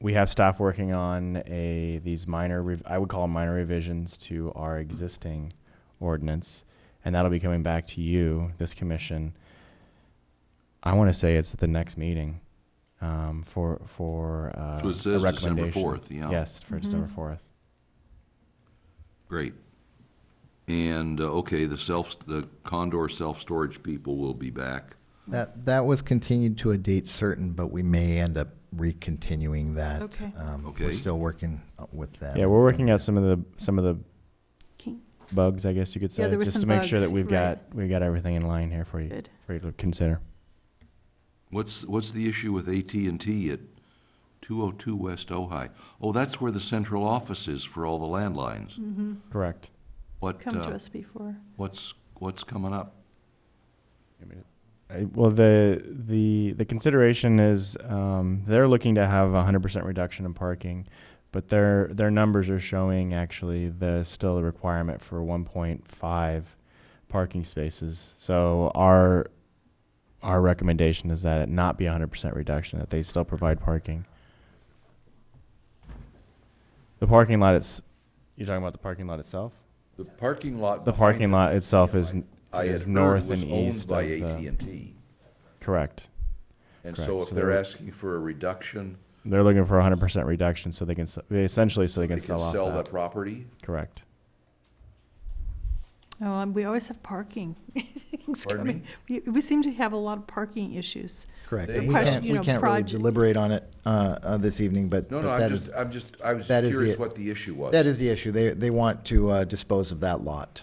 we have staff working on a these minor rev- I would call them minor revisions to our existing ordinance, and that'll be coming back to you, this commission. I want to say it's at the next meeting um, for for uh, So it a says December recommendation. 4th, yeah. Yes, Mm-hmm. for December fourth. Great. And, uh, okay, the self, the Condor self-storage people will be back. That, that was continued to a date certain, but we may end up recontinuing that. Okay. Um, We're Okay. still working uh, with that. Yeah, we're working out some of the some of the King. bugs, I guess you could say, Yeah, there were just to some make sure that bugs, we've right. got we've got everything in line here for you Good. for you to consider. What's, what's the issue with AT&T at 202 West Ojai? Oh, that's where the central office is for all the landlines. Correct. What, Mm-hmm. Come to uh, us before. what's, what's coming up? I- Well, the the the consideration is um, they're looking to have a hundred percent reduction in parking, but their their numbers are showing actually the still the requirement for one point five parking spaces. So our our recommendation is that it not be a hundred percent reduction, that they still provide parking. The parking lot it's you're talking about the parking lot itself? The parking lot. The behind parking it, lot itself is n- I had is heard, north was and owned east by of the, AT&T. correct. And so correct. if So they're they're- asking for a reduction, They're looking for a hundred percent reduction, so they can s- essentially so they they can can sell off sell that that. property? Correct. Oh, and we always have parking. things Pardon coming. We, we seem to have a lot of parking issues. Correct. The And we question, can't, you we know, can't really project- deliberate on it uh, uh, this evening, but No, but no, that I'm is- just, I'm just, I was that is curious the- what the issue was. That is the issue. They, they want to uh, dispose of that lot.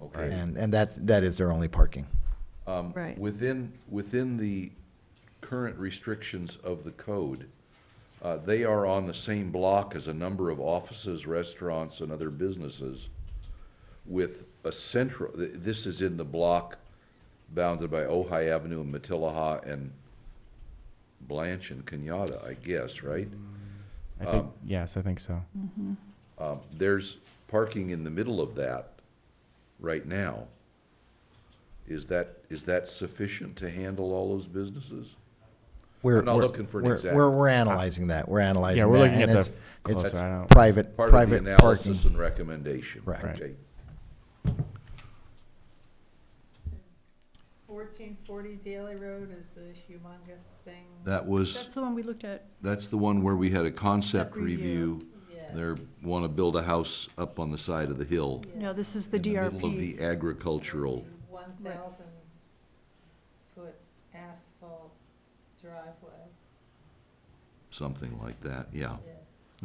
Okay. And, and that's, that is their only parking. Um, Right. Within, within the current restrictions of the code, uh, they are on the same block as a number of offices, restaurants, and other businesses with a central, th- this is in the block bounded by Ojai Avenue and Matilaha and Blanche and Kenyatta, I guess, right? I think, yes, I think so. Um, There's parking in the middle of that right now. Is that, is that sufficient to handle all those businesses? We're I'm not we're- looking for an we're- exact- We're, we're analyzing that. We're analyzing that. we're looking and at the it's- it's closer, I don't- Private, Part of the private parking. analysis and recommendation. Correct. Right. Okay. Fourteen forty Daly Road is the humongous thing. That was, That's the one we looked at. that's the one where we had a concept Concept review. review. They want to build a house up on the side of the hill. No, this is the In the middle of DRP. the agricultural, One thousand foot asphalt driveway, something like that, yeah. yes.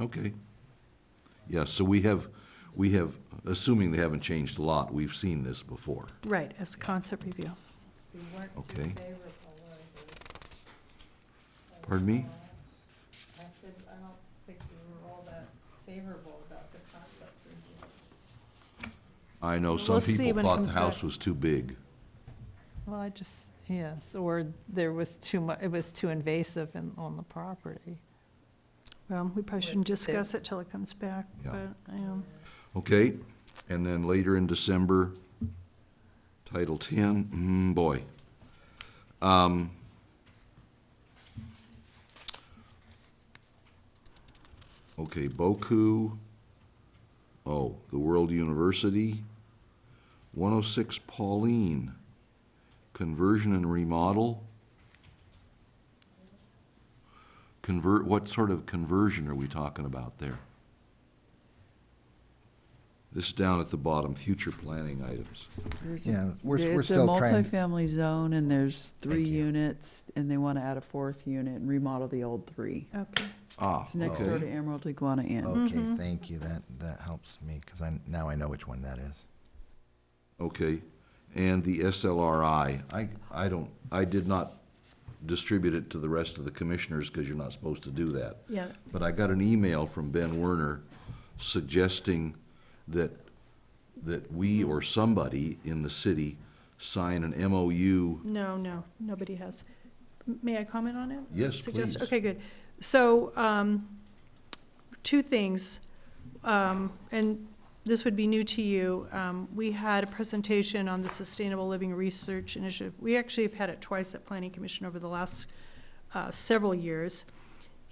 Okay. Yeah, so we have, we have, assuming they haven't changed a lot, we've seen this before. Right, as concept review. We weren't too Okay. favorable of it. So, uh, Pardon me? I said, I don't think we were all that favorable about the concept review. I know some We'll see people when it thought comes the house back. was too big. Well, I just, yes, or there was too mu, it was too invasive in, on the property. Well, we probably shouldn't With the- discuss it till it comes back, Yeah. but, um, Okay, and then later in December, Title Ten, mm, boy. Um, Okay, Boku, oh, the World University, one oh six Pauline, conversion and remodel. Convert, what sort of conversion are we talking about there? This is down at the bottom, future planning items. There's a- Yeah, we're, there- we're still trying. It's a multifamily zone, and there's three Thank you. units, and they want to add a fourth unit and remodel the old three. okay. Ah, Oh, It's next door to okay. Emerald Iguana Inn. Okay, thank you. That, that helps me because I, now I know which one that is. Okay. And the SLRI, I, I don't, I did not distribute it to the rest of the commissioners because you're not supposed to do that. Yeah. But I got an email from Ben Werner suggesting that, that we or somebody in the city sign an MOU. No, no, nobody has. M- May I comment on it? Yes, Suggest- please. Okay, good. So, um, two things, um, and this would be new to you. Um, we had a presentation on the Sustainable Living Research Initiative. We actually have had it twice at Planning Commission over the last, uh, several years.